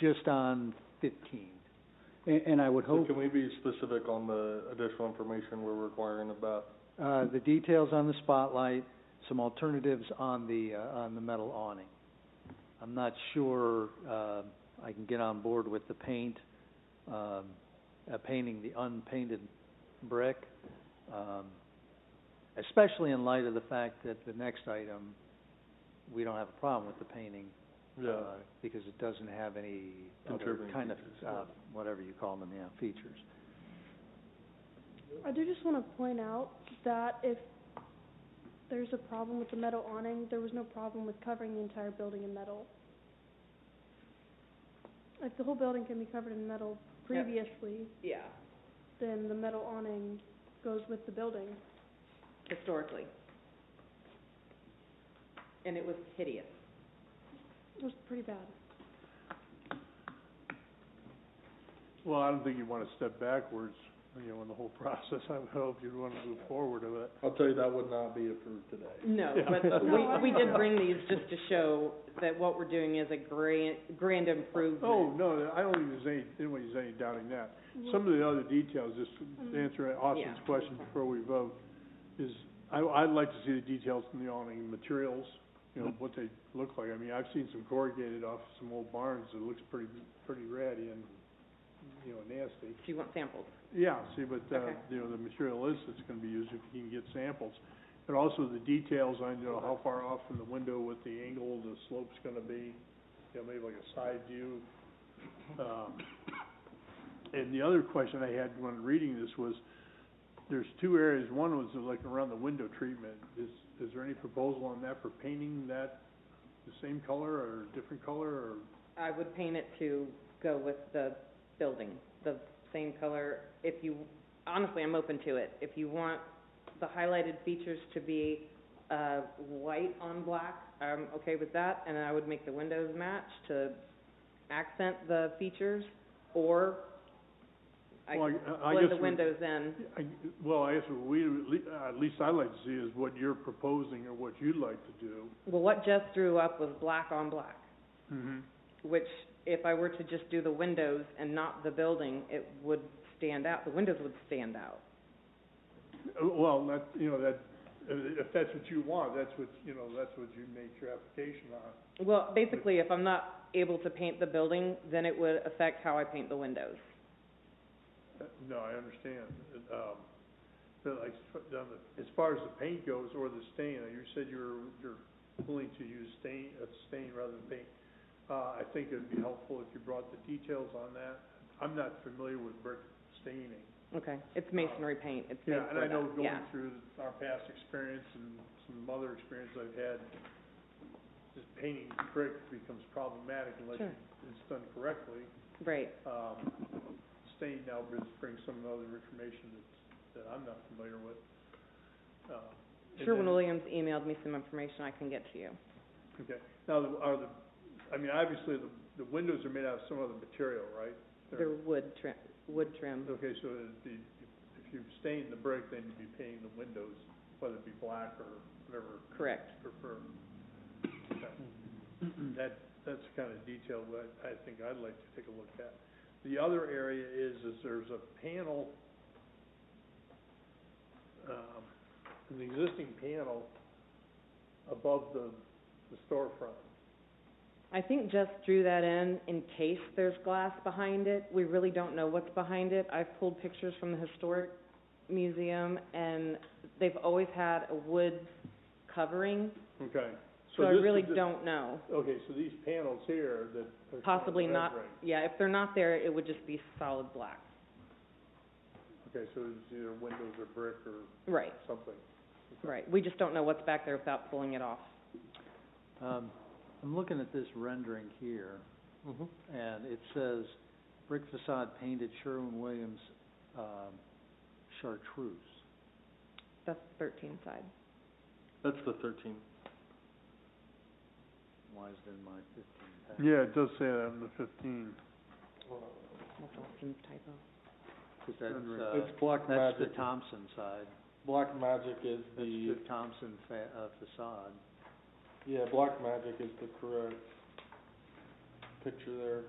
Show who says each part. Speaker 1: just on fifteen. And, and I would
Speaker 2: So
Speaker 1: hope,
Speaker 2: can we be specific on the additional information we're requiring about?
Speaker 1: uh, the details on the spotlight, some alternatives on the, uh, on the metal awning. I'm not sure, uh, I can get on board with the paint, um, uh, painting the unpainted brick, um, especially in light of the fact that the next item, we don't have a problem with the painting,
Speaker 2: Yeah,
Speaker 1: uh, because it doesn't have any other
Speaker 2: Contributing
Speaker 1: kind of,
Speaker 2: features,
Speaker 1: uh,
Speaker 2: yeah.
Speaker 1: whatever you call them, yeah, features.
Speaker 3: I do just want to point out that if there's a problem with the metal awning, there was no problem with covering the entire building in metal. If the whole building can be covered in metal
Speaker 4: Yeah.
Speaker 3: previously,
Speaker 4: Yeah,
Speaker 3: then the metal awning goes with the building.
Speaker 4: historically. And it was hideous.
Speaker 3: It was pretty bad.
Speaker 5: Well, I don't think you want to step backwards, you know, in the whole process. I would hope you'd want to move forward with it.
Speaker 2: I'll tell you, that would not be approved today.
Speaker 4: No, but we, we did bring these just to show that what we're doing is a grand, grand
Speaker 5: Oh,
Speaker 4: improvement.
Speaker 5: no, I don't think there's any, anybody's any doubting that. Some of the other details, just to answer Austin's
Speaker 4: Yeah.
Speaker 5: question before we vote, is I, I'd like to see the details in the awning, materials, you know, what they look like. I mean, I've seen some corrugated off some old barns that looks pretty, pretty ratty and, you know, nasty.
Speaker 4: Do you want samples?
Speaker 5: Yeah, see, but, uh,
Speaker 4: Okay.
Speaker 5: you know, the material is that's gonna be used if you can get samples. And also the details on, you know, how far off from the window, what the angle, the slope's gonna be, you know, maybe like a side view. Um, and the other question I had when reading this was, there's two areas, one was like around the window treatment. Is, is there any proposal on that for painting that the same color or different color or?
Speaker 4: I would paint it to go with the building, the same color. If you, honestly, I'm open to it. If you want the highlighted features to be, uh, white on black, I'm okay with that. And I would make the windows match to accent the features, or I
Speaker 5: Well,
Speaker 4: could
Speaker 5: I- I
Speaker 4: blend
Speaker 5: guess
Speaker 4: the
Speaker 5: we-
Speaker 4: windows in.
Speaker 5: I, well, I guess what we, at least I'd like to see is what you're proposing or what you'd like to do.
Speaker 4: Well, what Jeff drew up was black on black,
Speaker 5: Mm-hmm.
Speaker 4: which if I were to just do the windows and not the building, it would stand out, the windows would stand out.
Speaker 5: Well, that, you know, that, if that's what you want, that's what, you know, that's what you made your application on.
Speaker 4: Well, basically, if I'm not able to paint the building, then it would affect how I paint the windows.
Speaker 5: Uh, No, I understand. It, Um, but like, sp- down the- as far as the paint goes or the stain, uh, you said you're, you're willing to use stain, uh, stain rather than paint. Uh, I think it'd be helpful if you brought the details on that. I'm not familiar with brick staining.
Speaker 4: Okay, it's masonry paint, it's made
Speaker 5: Yeah, and I
Speaker 4: for
Speaker 5: know
Speaker 4: that,
Speaker 5: going
Speaker 4: yeah.
Speaker 5: through our past experience and some other experience I've had, just painting brick becomes problematic unless
Speaker 4: Sure.
Speaker 5: it's done correctly.
Speaker 4: Right,
Speaker 5: Um, stain now brings, brings some other information that's, that I'm not familiar with. Uh, and then-
Speaker 4: Sherwin-Williams emailed me some information I can get to you.
Speaker 5: Okay, now, the- are the, I mean, obviously, the, the windows are made out of some other material, right? They're-
Speaker 4: They're wood trim, wood trim,
Speaker 5: Okay, so it'd be, if you stain the brick, then you'd be painting the windows, whether it be black or whatever
Speaker 4: correct.
Speaker 5: prefer.
Speaker 2: Mm-hmm.
Speaker 5: That, that's the kind of detail that I think I'd like to take a look at. The other area is, is there's a panel, um, an existing panel above the, the storefront.
Speaker 4: I think Jess drew that in in case there's glass behind it. We really don't know what's behind it. I've pulled pictures from the historic museum and they've always had a wood covering,
Speaker 5: Okay.
Speaker 4: so I
Speaker 5: this-
Speaker 4: really
Speaker 5: this-
Speaker 4: don't know.
Speaker 5: Okay, so these panels here that. are-
Speaker 4: Possibly not,
Speaker 5: Right.
Speaker 4: yeah, if they're not there, it would just be solid black.
Speaker 5: Okay, so it's either windows or brick or
Speaker 4: Right,
Speaker 5: something.
Speaker 4: right. We just don't know what's back there without pulling it off.
Speaker 1: Um, I'm looking at this rendering here,
Speaker 2: Mm-hmm.
Speaker 1: and it says brick facade painted Sherwin-Williams, um, chartreuse.
Speaker 4: That's thirteen side.
Speaker 2: That's the thirteen.
Speaker 1: Why is it in my fifteen?
Speaker 5: Yeah, it does say that on the fifteen.
Speaker 4: That's Austin's typo.
Speaker 1: Cause that's, uh,
Speaker 2: It's Black
Speaker 1: that's the
Speaker 2: Magic.
Speaker 1: Thompson side,
Speaker 2: Black Magic is
Speaker 1: that's
Speaker 2: the,
Speaker 1: the Thompson fa- uh, facade.
Speaker 2: yeah, Black Magic is the correct picture there.